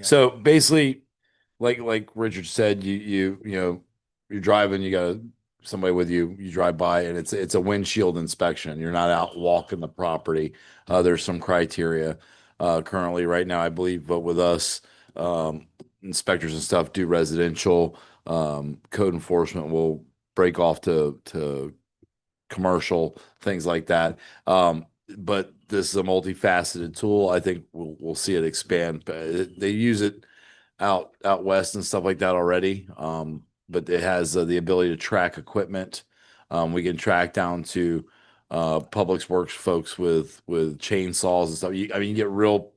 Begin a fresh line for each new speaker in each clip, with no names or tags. Yeah.
So basically, like like Richard said, you you you know you're driving, you got somebody with you, you drive by, and it's it's a windshield inspection. You're not out walking the property. Uh, there's some criteria uh, currently right now, I believe, but with us um, inspectors and stuff do residential. Um, code enforcement will break off to to commercial things like that. Um, but this is a multifaceted tool. I think we'll we'll see it expand. But it- They use it out out west and stuff like that already. Um, but it has uh, the ability to track equipment. Um, we can track down to uh, Public Works folks with with chainsaws and stuff. You, I mean, you get real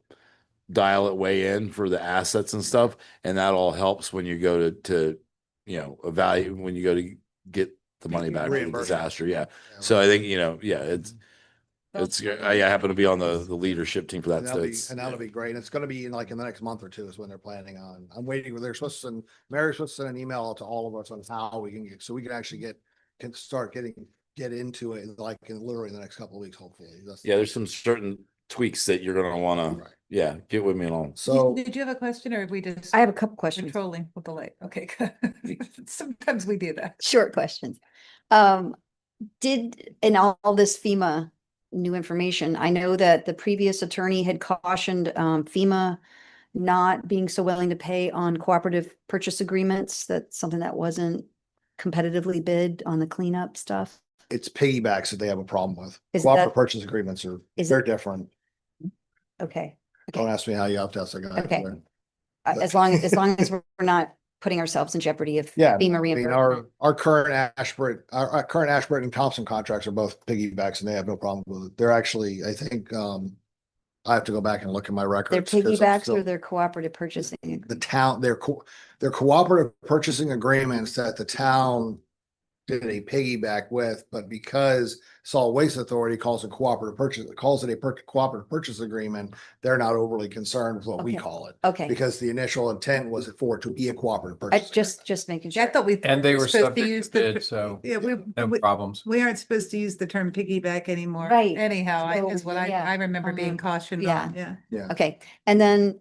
dial it way in for the assets and stuff, and that all helps when you go to to you know evaluate when you go to get the money back from the
Reimbursement.
disaster. Yeah. So I think you know, yeah, it's it's. I happen to be on the the leadership team for that.
And
So
that'll be,
it's
and that'll be great. And it's gonna be in like in the next month or two is when they're planning on. I'm waiting, they're supposed to send, Mary's supposed to send an email to all of us on how we can get, so we can actually get, can start getting, get into it like in literally the next couple of weeks, hopefully. That's-
yeah. There's uh, some certain tweaks that you're gonna wanna
Right.
yeah get with me on.
You-
So,
Did you have a question or have we just?
I have a couple questions,
Controlling with the light. Okay. good. Sometimes we do that.
short questions. Um, did, in all all this FEMA new information, I know that the previous attorney had cautioned um, FEMA not being so willing to pay on cooperative purchase agreements, that's something that wasn't competitively bid on the cleanup stuff.
it's piggybacks that they have a problem with.
Is
Cooperative
that-
purchase agreements are,
is
they're
it-
different.
Okay,
Don't ask me how you opt out. so I got it.
Okay. Uh, as long, as long as we're not putting ourselves in jeopardy of FEMA
Yeah, I mean, our,
reimbursement.
our current Ashburton, our, our current Ashburton and Thompson contracts are both piggybacks and they have no problem with it. They're actually, I think, um, I have to go back and look at my
Their
records. 'cause I'm
piggybacks
still-
or their cooperative purchasing. agreement?
The town, their, co- their cooperative purchasing agreements that the town did a piggyback with, but because Salt Waste Authority calls it cooperative purchase, calls it a per- cooperative purchase agreement, they're not overly concerned with what we
Okay.
call it.
Okay,
Because the initial intent was for it to be a cooperative
I
purchase.
just, just making
I
sure.
thought we.
And they were
supposed to
subject
use
to
the-
bid, so
Yeah, we,
no
we-
problems.
we aren't supposed to use the term piggyback anymore.
Right.
Anyhow, I-
So,
is what I,
yeah,
I remember being
um,
cautioned
yeah.
on. Yeah.
Okay, and then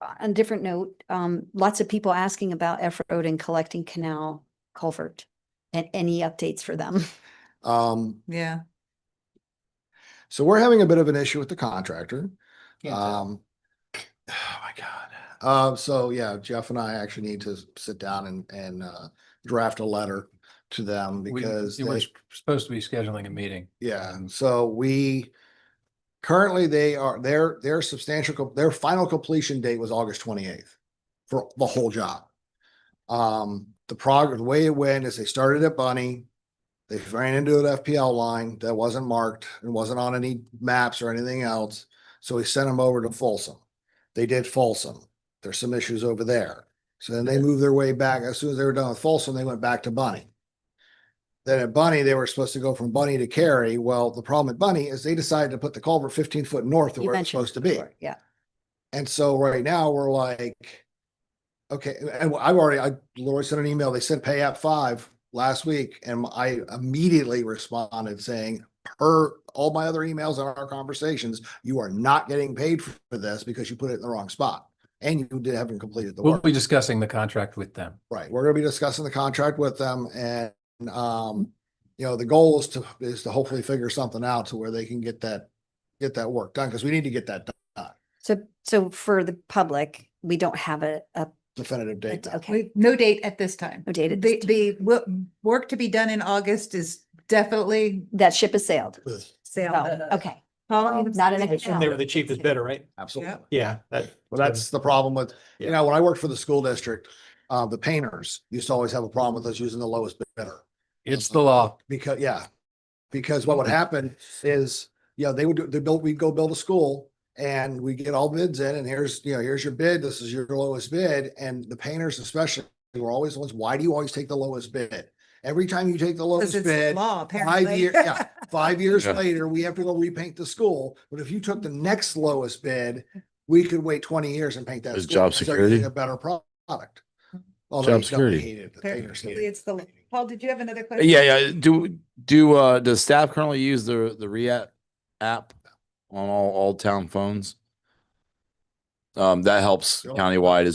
uh, on a different note, um, lots of people asking about F Road and collecting canal culvert. And any updates for them?
agreement. Um,
Yeah.
So we're having a bit of an issue with the contractor.
Can't tell.
Um, oh my God. Uh, so yeah, Jeff and I actually need to sit down and, and, uh, draft a letter to them
We,
because
you were
they,
s- supposed to be scheduling a meeting.
yeah, so we currently they are, their, their substantial, co- their final completion date was August twenty-eighth for the whole job. Um, the progress, the way it went is they started at Bunny. They ran into an FPL line that wasn't marked and wasn't on any maps or anything else. So we sent them over to Folsom. They did Folsom. There's some issues over there. So then they moved their way back. As soon as they were done with Folsom, they went back to Bunny. Then at Bunny, they were supposed to go from Bunny to Cary. Well, the problem at Bunny is they decided to put the culvert fifteen foot north of
You
where
mentioned
it's supposed to
it
be.
before, Yeah,
And so right now we're like, okay, and I've already, I literally sent an email. They said pay app five last week. And I immediately responded saying, per all my other emails and our conversations, you are not getting paid for this because you put it in the wrong spot. And you did haven't completed the
We'll
work.
be discussing the contract with them.
Right. We're gonna be discussing the contract with them and, um, you know, the goal is to, is to hopefully figure something out to where they can get that, get that work done because we need to get that
so, so for the public, we don't have a, a,
definitive
a-
date. now.
okay,
We, no date at this time.
No date at
The,
this
the wo- work to be done in August is definitely
that ship has sailed.
sailed.
Oh, okay,
Following the
Not an
sailed.
exception.
And they were the cheapest bidder, right?
Absolutely.
Yep.
Yeah, that.
Well, that's the problem with, you
Yeah.
know, when I worked for the school district, uh, the painters used to always have a problem with us using the lowest bidder.
It's the law.
Because, yeah, because what would
Mm-hmm.
happen is, you know, they would, do- they built, we'd go build a school and we get all bids in and here's, you know, here's your bid, this is your lowest bid. And the painters especially were always the ones, why do you always take the lowest bid? Every time you take the
Because
lowest
it's
bid,
law,
five
apparently.
years, yeah, five years
Yeah.
later, we have to go repaint the school. But if you took the next lowest bid, we could wait twenty years and paint that.
Is
school
job
and start
security?
getting A better pro- product. Although
Job
he definitely
security.
hated the
Apparently
painters hated
It's the, Paul, did you have another question?
Yeah, yeah. Do do uh does staff currently use the the React app on all all town phones? Um, that helps
Sure.
countywide